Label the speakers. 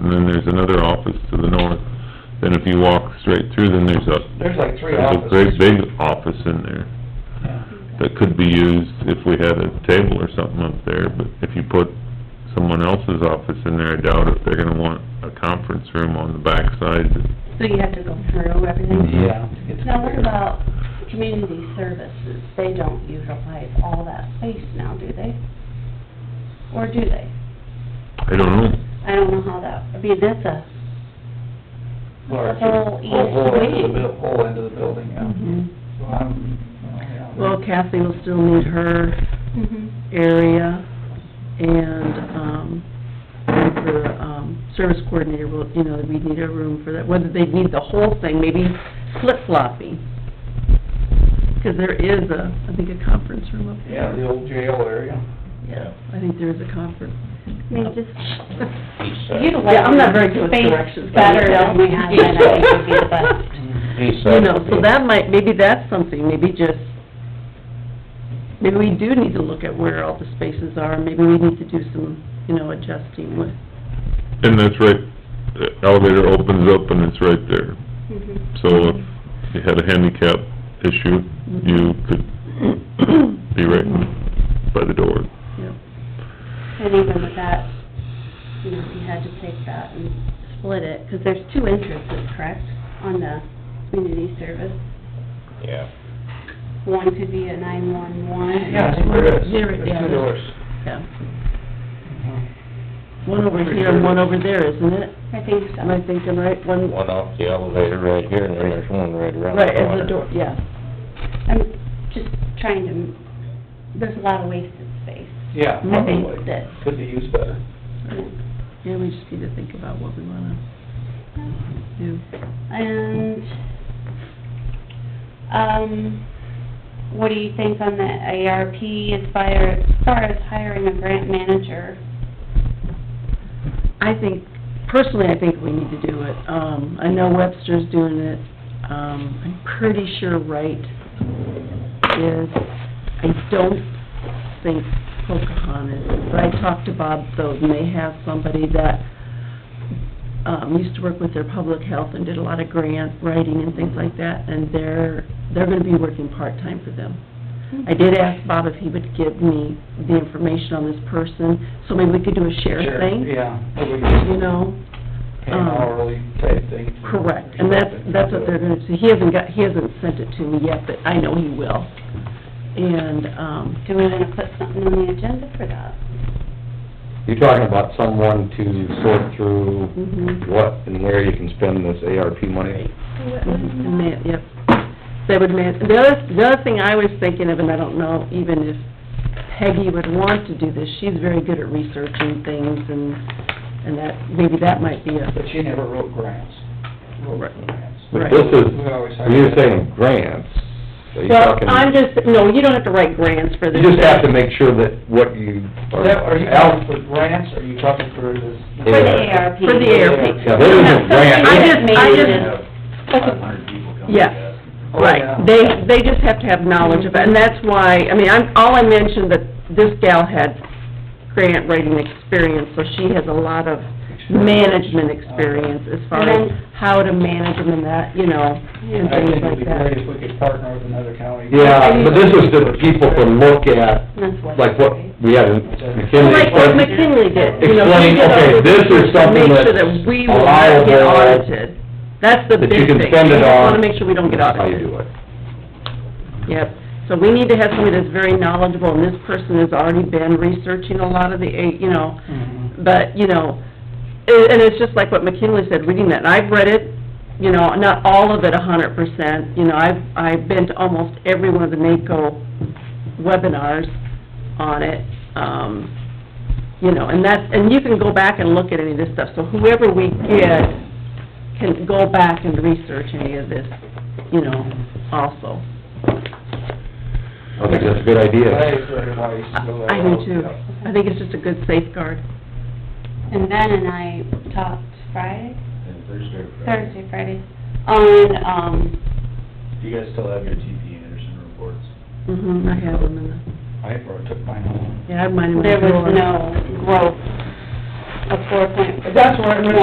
Speaker 1: and then there's another office to the north. Then if you walk straight through, then there's a,
Speaker 2: There's like three
Speaker 1: there's a
Speaker 2: offices.
Speaker 1: great big office in there
Speaker 2: Yeah.
Speaker 1: that could be used if we had a table or something up there, but if you put someone else's office in there, I doubt if they're gonna want a conference room on the backside.
Speaker 3: So you have to go through everything?
Speaker 1: Mhm.
Speaker 2: Yeah. it's
Speaker 3: Now, what
Speaker 2: clear.
Speaker 3: about community services? They don't utilize all that space now, do they? Or do they?
Speaker 1: I don't know.
Speaker 3: I don't know how that, I mean, that's a,
Speaker 2: Larger,
Speaker 3: whole
Speaker 4: E
Speaker 3: east
Speaker 2: Whole end of
Speaker 3: wing.
Speaker 2: the, buil- whole end of the building, yeah. So I'm, yeah.
Speaker 4: Mm-hmm. Well, Kathy will still need her area, and, um, and for, um, service coordinator, will you know, we need a room for that, whether they need the whole thing, maybe flip-flopping. Because there is a, I think, a conference room up there.
Speaker 2: Yeah, the old jail area.
Speaker 4: Yeah, I think there is a conference.
Speaker 3: I mean, just
Speaker 5: East
Speaker 4: Yeah,
Speaker 3: utilize
Speaker 4: I'm not very good
Speaker 3: your
Speaker 4: with
Speaker 3: space
Speaker 4: directions, but-
Speaker 3: better than we have been, I think would be the best.
Speaker 4: Mm-hmm.
Speaker 5: east
Speaker 4: You know, so that might, maybe that's something, maybe just, maybe we do need to look at where all the spaces are, maybe we need to do some, you know, adjusting with,
Speaker 1: And that's right, the elevator opens up and it's right there.
Speaker 2: Mm-hmm.
Speaker 3: Mhm.
Speaker 1: So if you had a handicap issue, you could be right by the door.
Speaker 4: you know,
Speaker 3: And even with that, you know, you had to take that and split it, because there's two entrances, correct, on the community service?
Speaker 5: Yeah.
Speaker 3: One could be a nine-one-one.
Speaker 2: Yeah, I think there is.
Speaker 4: Near it,
Speaker 2: There's
Speaker 4: yeah.
Speaker 2: two doors.
Speaker 4: yeah.
Speaker 2: Mm-hmm.
Speaker 4: One over here and one over there, isn't it?
Speaker 3: I think so.
Speaker 4: Am I thinking right? One,
Speaker 5: One off the elevator right here, and then there's one right around the
Speaker 4: right,
Speaker 5: corner.
Speaker 4: as the door, yeah.
Speaker 3: I'm just trying to, there's a lot of wasted space.
Speaker 2: Yeah,
Speaker 4: Mhm.
Speaker 2: probably.
Speaker 3: That-
Speaker 2: Could be used better.
Speaker 4: Yeah, we just need to think about what we wanna do.
Speaker 3: And, um, what do you think on the ARP as far, as far as hiring a grant manager?
Speaker 4: I think, personally, I think we need to do it. Um, I know Webster's doing it. Um, I'm pretty sure Wright is. I don't think Pocahontas, but I talked to Bob Thoden. They have somebody that, um, used to work with their public health and did a lot of grant writing and things like that, and they're, they're gonna be working part-time for them. I did ask Bob if he would give me the information on this person, so maybe we could do a share
Speaker 2: Sure,
Speaker 4: thing
Speaker 2: Yeah, that would
Speaker 4: you
Speaker 2: be
Speaker 4: know, um,
Speaker 2: an hourly type thing.
Speaker 4: correct, and that's, that's what they're gonna do. He hasn't got, he hasn't sent it to me yet, but I know he will. And, um,
Speaker 3: Do we wanna put something on the agenda for that?
Speaker 6: You're talking about someone to sort through
Speaker 4: mhm,
Speaker 6: what and where you can spend this ARP money?
Speaker 4: mhm, and that, yep, they would man, the other, the other thing I was thinking of, and I don't know even if Peggy would want to do this, she's very good at researching things and, and that, maybe that might be a,
Speaker 2: But she never wrote grants. Wrote grants.
Speaker 4: Right.
Speaker 6: But this is,
Speaker 2: We always have-
Speaker 6: when you're saying grants, so you're
Speaker 4: well,
Speaker 6: talking...
Speaker 4: I'm just, no, you don't have to write grants for
Speaker 6: You
Speaker 4: this.
Speaker 6: just have to make sure that what you
Speaker 2: Is
Speaker 6: are...
Speaker 2: that- Are you talking for grants, or are you talking for this?
Speaker 3: For the ARP?
Speaker 4: For the ARP.
Speaker 6: Yeah, there is a grant.
Speaker 4: I just- I just-
Speaker 3: That's a-
Speaker 4: Yeah.
Speaker 2: Oh, yeah.
Speaker 4: Right, they, they just have to have knowledge of it, and that's why, I mean, I'm, all I mentioned that this gal had grant writing experience, so she has a lot of management experience as far as how to manage them and that, you know, and
Speaker 2: I think
Speaker 4: things
Speaker 2: it'd
Speaker 4: like
Speaker 2: be great
Speaker 4: that.
Speaker 2: if we could partner with another county.
Speaker 6: Yeah, but this is to people to look at,
Speaker 3: That's what.
Speaker 6: like what we had in McKinley...
Speaker 4: Like what
Speaker 6: explained.
Speaker 4: McKinley did, you know, he
Speaker 6: Explain,
Speaker 4: did all
Speaker 6: okay, this is
Speaker 4: this to
Speaker 6: something
Speaker 4: make sure
Speaker 6: that's
Speaker 4: that we will not get
Speaker 6: allowable,
Speaker 4: audited. That's the
Speaker 6: that you
Speaker 4: big
Speaker 6: can
Speaker 4: thing, we
Speaker 6: spend it
Speaker 4: just wanna
Speaker 6: on.
Speaker 4: make sure we don't get
Speaker 6: That's how you
Speaker 4: audited.
Speaker 6: do it.
Speaker 4: Yep, so we need to have somebody that's very knowledgeable, and this person has already been researching a lot of the, eh, you know,
Speaker 2: Mhm.
Speaker 4: but, you know, a- and it's just like what McKinley said, reading that, and I've read it, you know, not all of it a hundred percent, you know, I've, I've been to almost every one of the NACO webinars on it, um, you know, and that's, and you can go back and look at any of this stuff, so whoever we get can go back and research any of this, you know, also.
Speaker 6: I think that's a good idea.
Speaker 2: That is very wise. to go that
Speaker 4: I do
Speaker 2: route,
Speaker 4: too.
Speaker 2: uh, yeah.
Speaker 4: I think it's just a good safeguard.
Speaker 3: And Ben and I talked Friday? Thursday, Friday, on, um,
Speaker 7: You guys still have your TP Anderson reports?
Speaker 4: Mm-hmm, I have them in the,
Speaker 2: I brought- took mine home.
Speaker 4: yeah, I have mine in my
Speaker 3: there
Speaker 4: drawer.
Speaker 3: was no growth of four point
Speaker 2: That's where I went